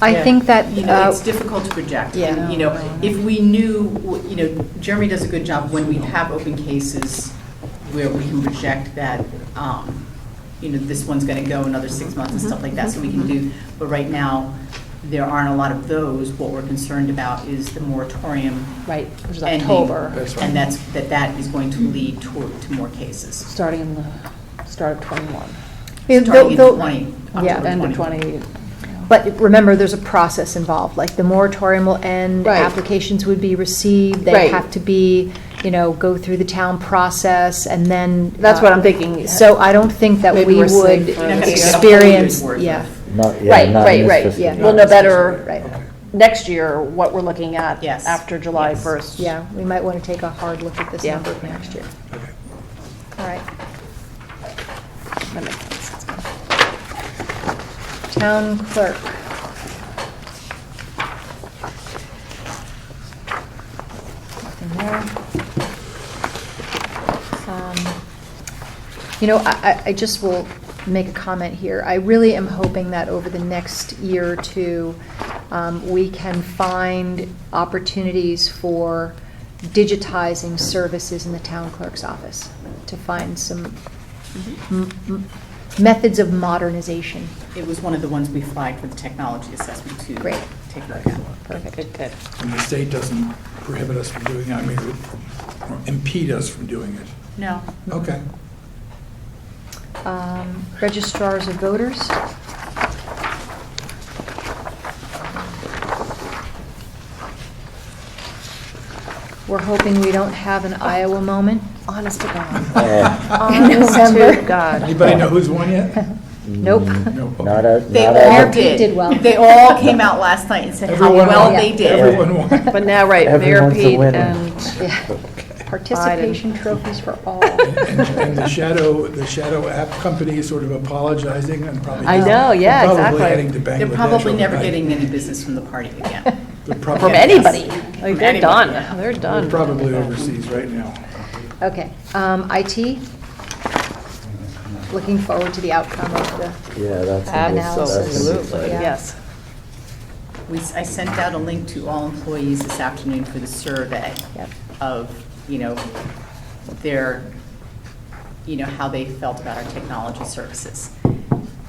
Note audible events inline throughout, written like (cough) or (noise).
I Yeah. think that, You know, uh, it's difficult to project. Yeah. You know, if we knew, you know, Jeremy does a good job when we have open cases where we can project that, um, you know, this one's going to go another six months Mm-hmm. and stuff like that, so we can do, but right now, there aren't a lot of those. What we're concerned about is the moratorium right, which is ending. October, That's right. And that's, that that is going to lead toward, to more cases. starting in the, start of '21. Yeah, Starting though- in though- 20, Yeah, October End of 20. '20. but remember, there's a process involved, like the moratorium will end, Right. applications would be received, they Right. have to be, you know, go through the town process, and then. That's uh, what I'm thinking. So I don't think that Maybe we we're safe would for You're not gonna get a whole Uh, experience, year's worth yeah. of- Not, yeah, Right, not in right, this right, fiscal yeah. year. We'll know better Right. next year what we're looking at Yes. after July Yes. 1st. Yeah, we might want to take a hard look at this Yeah. number next year. All right. That makes sense. Town clerk. Nothing there. Um, You know, I, I- I just will make a comment here. I really am hoping that over the next year or two, um, we can find opportunities for digitizing services in the town clerk's office, to find some m- m- methods of modernization. It was one of the ones we flagged for the technology assessment to Great. take a look at. Perfect. Good, good. And the state doesn't prohibit us from doing, it. I mean, or impede us from doing it. No. Okay. Um, Registrars of voters? We're hoping we don't have an Iowa moment. Honest (laughs) to (laughs) God. Uh, (laughs) Honest to November. (laughs) God. Anybody know who's won yet? Nope. No. Not a, They not all Mayor a, Pete did. did well. They all came out last night and said how Everyone well won. they did. Everyone won. But now, right, Mayor Everyone's a Pete winner. and, Yeah. Participation trophies for (laughs) all. And and the shadow, the shadow app company is sort of apologizing and probably. I know, yeah, exactly. Probably heading to Bangladesh. They're probably never overnight. getting any business from the party again. They're probably- from anybody. Like, From They're anybody, done, yeah. they're They're done. probably overseas right now. Okay, um, IT? Looking forward to the outcome of the, yeah, that's. a good- that's a good Absolutely, plan. Yeah. yes. We, I sent out a link to all employees this afternoon for the survey Yep. of, you know, their, you know, how they felt about our technology services.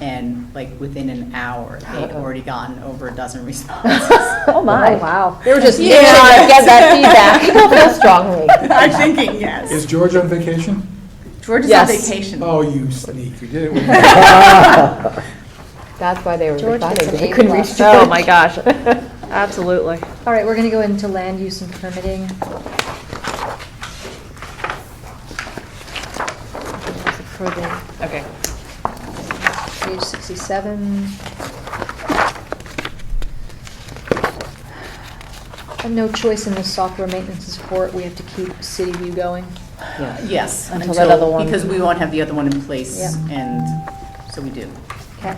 And like within an hour, they'd already gotten over a (laughs) dozen responses. Oh, my. wow. They were just, Yeah. (laughs) yeah, get (laughs) that (laughs) feedback. People feel strongly. I'm thinking, yes. Is George on vacation? George is on Yes. vacation. Oh, you sneak, you did it. (laughs) with- That's why they were George gets deciding an they A couldn't plus. reach. (laughs) Oh, my gosh. Absolutely. All right, we're going to go into land use and permitting. Further Okay. Page 67. And no choice in the software maintenance and support, we have to keep City View going. Yes. Until that other one- Because we won't have the other one in place, Yeah. and so we do. Okay.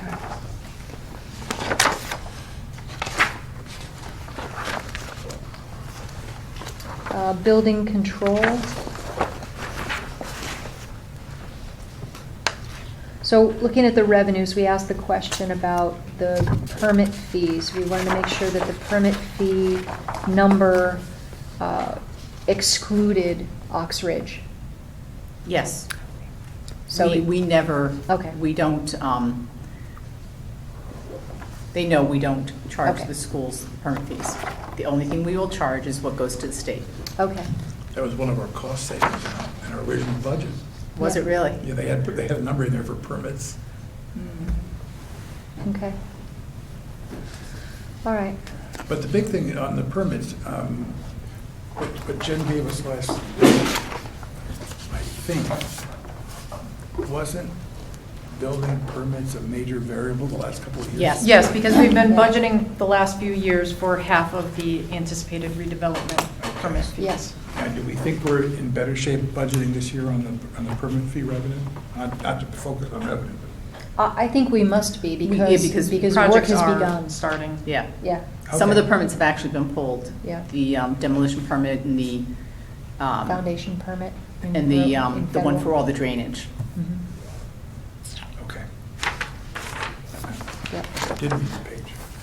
Uh, Building control. So looking at the revenues, we asked the question about the permit fees. We wanted to make sure that the permit fee number uh, excluded Ox Ridge. Yes. So We, we- we never. Okay. We don't, um, they know we don't charge Okay. the schools permit fees. The only thing we will charge is what goes to the state. Okay, That was one of our cost savings in our original budget. Was it really? Yeah, they had, they had a number in there for permits. okay. All right. But the big thing on the permits, um, what what Jen gave us last, I think, wasn't building permits a major variable the last couple of years? Yes. Yes, because we've been budgeting the last few years for half of the anticipated redevelopment permit fees. Yes. Now, do we think we're in better shape budgeting this year on the, on the permit fee revenue? Not not to focus on revenue, but I I think we must be yeah, because, because because work Projects has are begun. starting. Yeah. Yeah, Some of Okay. the permits have actually been pulled. Yeah. The um, demolition permit and the, um, foundation permit. in and the, rural- um, in the one federal. for all the drainage. Mhm, okay. yep. Did we